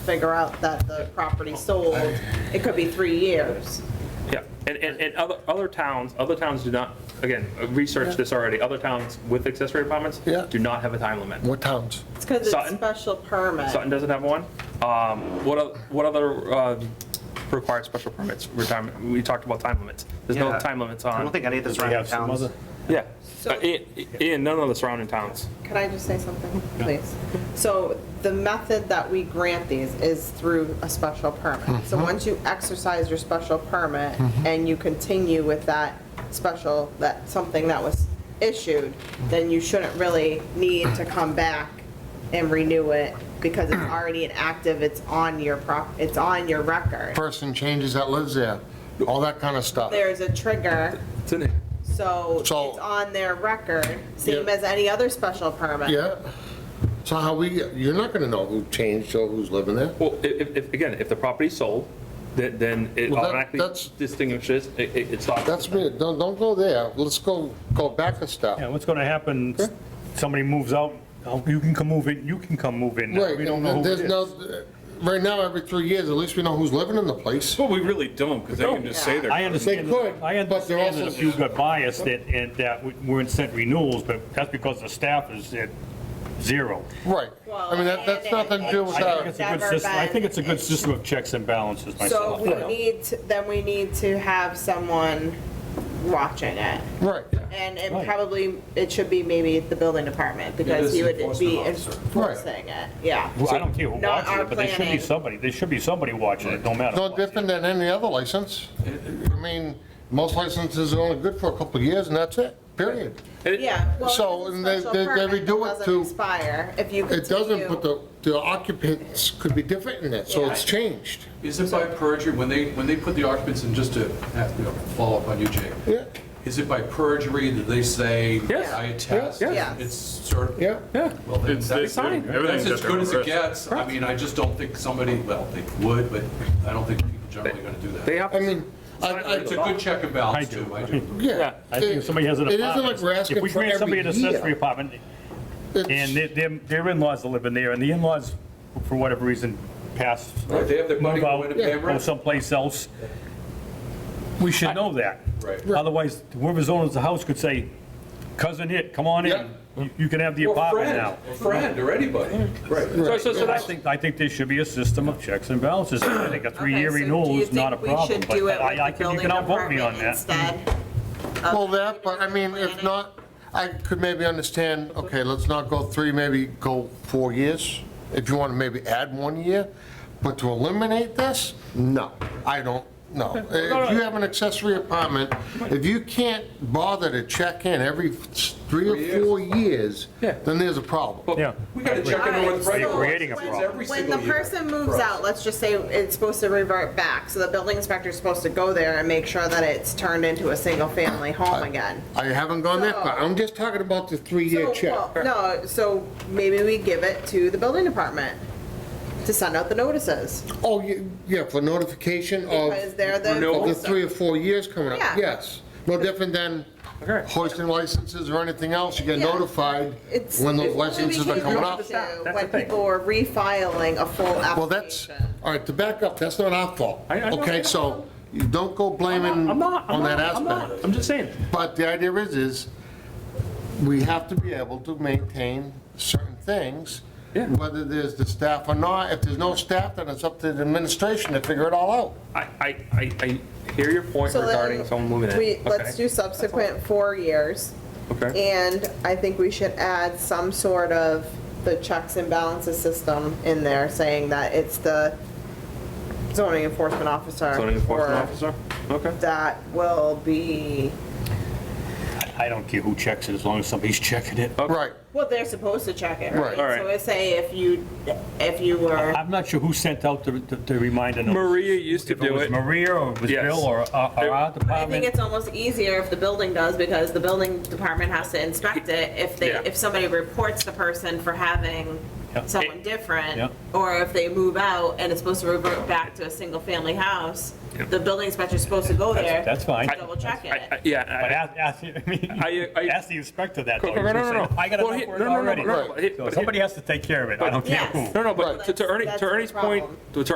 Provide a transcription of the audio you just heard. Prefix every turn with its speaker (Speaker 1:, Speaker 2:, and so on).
Speaker 1: figure out that the property sold, it could be three years.
Speaker 2: Yeah, and, and, and other, other towns, other towns do not, again, research this already, other towns with accessory apartments
Speaker 3: Yeah.
Speaker 2: do not have a time limit.
Speaker 3: What towns?
Speaker 1: It's because it's
Speaker 2: Sutton?
Speaker 1: special permit.
Speaker 2: Sutton doesn't have one. Um, What, oth- what other um, required special permits, retirement, we talked about time limits. There's no
Speaker 4: Yeah.
Speaker 2: time limits
Speaker 4: I don't
Speaker 2: on,
Speaker 4: think any of the
Speaker 5: We
Speaker 4: surrounding
Speaker 5: have some
Speaker 4: towns.
Speaker 5: other-
Speaker 2: yeah, Uh, in, in none of the surrounding towns.
Speaker 1: Could I just say something, please? So the method that we grant these is through a special permit.
Speaker 2: Mm-hmm.
Speaker 1: So once you exercise your special permit and you continue with that special, that, something that was issued, then you shouldn't really need to come back and renew it because it's already inactive, it's on your prop, it's on your record.
Speaker 3: Person changes that lives there, all that kind of stuff.
Speaker 1: There's a trigger,
Speaker 2: It's in it.
Speaker 1: so it's
Speaker 3: So-
Speaker 1: on their record, same
Speaker 3: Yeah.
Speaker 1: as any other special permit.
Speaker 3: Yeah. So how we, you're not gonna know who changed or who's living there.
Speaker 2: Well, i- if, if, again, if the property's sold, then, then it
Speaker 3: Well, that-
Speaker 2: automatically
Speaker 3: that's-
Speaker 2: distinguishes, it, it- it's not.
Speaker 3: That's me, don't, don't go there, let's go, go back a
Speaker 5: Yeah,
Speaker 3: step.
Speaker 5: what's gonna happen,
Speaker 3: Sure.
Speaker 5: somebody moves out, oh, you can come move in, you can come move in now,
Speaker 3: Right,
Speaker 5: we don't know
Speaker 3: and
Speaker 5: who it
Speaker 3: there's no,
Speaker 5: is.
Speaker 3: right now, every three years, at least we know who's living in the place.
Speaker 6: Well, we really don't, because they can just say
Speaker 5: I
Speaker 6: they're,
Speaker 5: understand,
Speaker 3: They could,
Speaker 5: I
Speaker 3: but they're
Speaker 5: understand that
Speaker 3: also-
Speaker 5: if you got biased that, and that we weren't sent renewals, but that's because the staff is at zero.
Speaker 3: Right, I mean, that, that's nothing to do with
Speaker 5: I think
Speaker 3: our,
Speaker 5: it's a good
Speaker 1: Never
Speaker 5: system, I
Speaker 1: been-
Speaker 5: think it's a good system of checks and balances
Speaker 1: So
Speaker 5: myself.
Speaker 1: we need, to- then we need to have someone watching it.
Speaker 3: right,
Speaker 1: And it
Speaker 5: Right.
Speaker 1: probably, it should be maybe the building department because
Speaker 6: this
Speaker 1: he would be
Speaker 6: enforcement officer.
Speaker 1: enforcing it, yeah.
Speaker 5: Well, I don't care who
Speaker 1: Not
Speaker 5: watches
Speaker 1: our
Speaker 5: it, but there should be
Speaker 1: planning.
Speaker 5: somebody, there should be somebody watching it, no matter.
Speaker 3: no
Speaker 5: what.
Speaker 3: different than any other license. I mean, most licenses are only good for a couple of years and that's it, period.
Speaker 1: Yeah. well,
Speaker 3: So,
Speaker 1: it's a
Speaker 3: and they-
Speaker 1: special
Speaker 3: they- they
Speaker 1: permit
Speaker 3: redo
Speaker 1: that
Speaker 3: it
Speaker 1: doesn't
Speaker 3: to-
Speaker 1: Expire if you
Speaker 3: It doesn't, but
Speaker 1: continue.
Speaker 3: the, the occupants could be different in that, so it's changed.
Speaker 6: is it by perjury, when they, when they put the occupants in, just to have, you know, follow up on you, Jake?
Speaker 3: Yeah,
Speaker 6: Is it by perjury that they say,
Speaker 2: Yes.
Speaker 6: I attest?
Speaker 2: Yes.
Speaker 1: Yes.
Speaker 6: It's sort of,
Speaker 3: yeah.
Speaker 2: Yeah,
Speaker 6: well, then
Speaker 7: It's, they
Speaker 6: that's,
Speaker 7: do.
Speaker 2: fine.
Speaker 7: Everything's
Speaker 6: that's as
Speaker 7: at their
Speaker 6: good
Speaker 7: own
Speaker 6: as it
Speaker 7: risk.
Speaker 6: gets. I mean, I just don't think somebody, well, they would, but I don't think people generally are gonna do
Speaker 2: they
Speaker 6: that.
Speaker 2: have.
Speaker 3: I mean, I, I,
Speaker 6: It's a good check and
Speaker 5: I
Speaker 6: balance,
Speaker 5: do.
Speaker 6: too, I do.
Speaker 3: yeah.
Speaker 5: I think if somebody has an
Speaker 3: It isn't
Speaker 5: apartment.
Speaker 3: like we're asking
Speaker 5: If
Speaker 3: for
Speaker 5: we grant somebody an
Speaker 3: every year.
Speaker 5: accessory apartment, and their- their, their in-laws are living there, and the in-laws, for whatever reason, pass.
Speaker 6: Right, they have their money
Speaker 5: move out,
Speaker 6: going to pay
Speaker 5: Go
Speaker 6: rent.
Speaker 5: someplace else. We should know that.
Speaker 6: Right.
Speaker 5: Otherwise, whoever's owns the house could say, cousin it, come on
Speaker 6: Yeah.
Speaker 5: in, You- you can have the
Speaker 6: Or
Speaker 5: apartment
Speaker 6: friend,
Speaker 5: now.
Speaker 6: or Friend, or anybody. Right.
Speaker 2: So, so, so
Speaker 5: I
Speaker 2: that's,
Speaker 5: think, I think there should be a system of checks and balances, I think a three-year
Speaker 1: Okay, so do
Speaker 5: renewal
Speaker 1: you
Speaker 5: is not a
Speaker 1: think we
Speaker 5: problem,
Speaker 1: should
Speaker 5: but
Speaker 1: do it with
Speaker 5: I, I
Speaker 1: the
Speaker 5: can, you
Speaker 1: building
Speaker 5: can outvote me on
Speaker 1: department
Speaker 5: that.
Speaker 1: Instead.
Speaker 3: Well, that, but I mean, if not, I could maybe understand, okay, let's not go three, maybe go four years, if you want to maybe add one year, but to eliminate this, no, I don't, no. If you have an accessory apartment, if you can't bother to check in every three or four years,
Speaker 2: Yeah.
Speaker 3: then there's a problem.
Speaker 5: Yeah.
Speaker 6: We gotta check in
Speaker 1: Alright,
Speaker 6: with
Speaker 1: so
Speaker 6: right.
Speaker 5: You're creating a
Speaker 6: It's
Speaker 5: problem.
Speaker 6: every
Speaker 1: When the
Speaker 6: single year.
Speaker 1: person moves
Speaker 6: Right.
Speaker 1: out, let's just say it's supposed to revert back, so the building inspector's supposed to go there and make sure that it's turned into a single-family home again.
Speaker 3: I Oh, haven't gone that far, I'm just talking about the three-year
Speaker 1: So,
Speaker 3: check.
Speaker 1: well, No, so maybe we give it to the building department to send out the notices,
Speaker 3: Oh, ye- yeah, for notification of,
Speaker 1: because they're the.
Speaker 3: of the three or four years coming up,
Speaker 1: Yeah.
Speaker 3: yes. No different than hoisting licenses or anything else, you get
Speaker 1: Yeah.
Speaker 3: notified
Speaker 1: It's-
Speaker 3: when those
Speaker 1: it's what we
Speaker 3: licenses are
Speaker 1: came
Speaker 3: coming up.
Speaker 1: to When people were refiling a full application.
Speaker 3: Well, that's, all right, to back up, that's not our fault.
Speaker 2: I- I know, I
Speaker 3: Okay,
Speaker 2: know.
Speaker 3: so you don't go blaming
Speaker 2: I'm not, I'm
Speaker 3: on that
Speaker 2: not, I'm not,
Speaker 3: aspect.
Speaker 2: I'm just saying.
Speaker 3: But the idea is, is we have to be able to maintain certain things,
Speaker 2: Yeah.
Speaker 3: whether there's the staff or not. If there's no staff, then it's up to the administration to figure it all out.
Speaker 2: I, I, I, I hear your point
Speaker 1: So then
Speaker 2: regarding someone moving in.
Speaker 1: we- Let's
Speaker 2: Okay.
Speaker 1: do subsequent four years.
Speaker 2: Okay.
Speaker 1: And I think we should add some sort of the checks and balances system in there, saying that it's the zoning enforcement officer.
Speaker 2: Zoning enforcement
Speaker 1: or
Speaker 2: officer, okay.
Speaker 1: That will be,
Speaker 5: I don't care who checks it, as long as somebody's checking it.
Speaker 3: Right.
Speaker 1: well, they're supposed to check it, right?
Speaker 3: Right. All
Speaker 2: right.
Speaker 1: So I say if you, if you were,
Speaker 5: I'm not sure who sent out the, the- the reminder. notice.
Speaker 2: Maria used to
Speaker 5: If it
Speaker 2: do
Speaker 5: was
Speaker 2: it.
Speaker 5: Maria or it was
Speaker 2: Yes.
Speaker 5: Bill or uh, or our
Speaker 1: I think
Speaker 5: department.
Speaker 1: it's almost easier if the building does, because the building department has to inspect it. If they,
Speaker 2: Yeah.
Speaker 1: if somebody reports the person for having
Speaker 5: Yeah.
Speaker 1: someone
Speaker 5: Yeah.
Speaker 1: different, or if they move out and it's supposed to revert back to a single-family house,
Speaker 2: Yeah.
Speaker 1: the building inspector's supposed to go there.
Speaker 5: that's fine.
Speaker 1: and Double-check
Speaker 2: I- I-
Speaker 1: it.
Speaker 2: Yeah.
Speaker 5: But
Speaker 2: I-
Speaker 5: ask, ask, I mean,
Speaker 2: I- I-
Speaker 5: ask the inspector that.
Speaker 2: No,
Speaker 5: though.
Speaker 2: no,
Speaker 5: He's
Speaker 2: no,
Speaker 5: just
Speaker 2: no.
Speaker 5: saying, I got
Speaker 2: Well,
Speaker 5: enough
Speaker 2: he-
Speaker 5: for it
Speaker 2: no, no, no,
Speaker 5: already.
Speaker 2: no, but he-
Speaker 5: So
Speaker 2: but he-
Speaker 5: somebody has to take care of it. I don't care
Speaker 1: Yes.
Speaker 5: who.
Speaker 2: No, no, but to- to
Speaker 1: That's-
Speaker 2: Ernie,
Speaker 8: that's
Speaker 2: to
Speaker 8: the
Speaker 2: Ernie's point,
Speaker 8: problem.
Speaker 2: to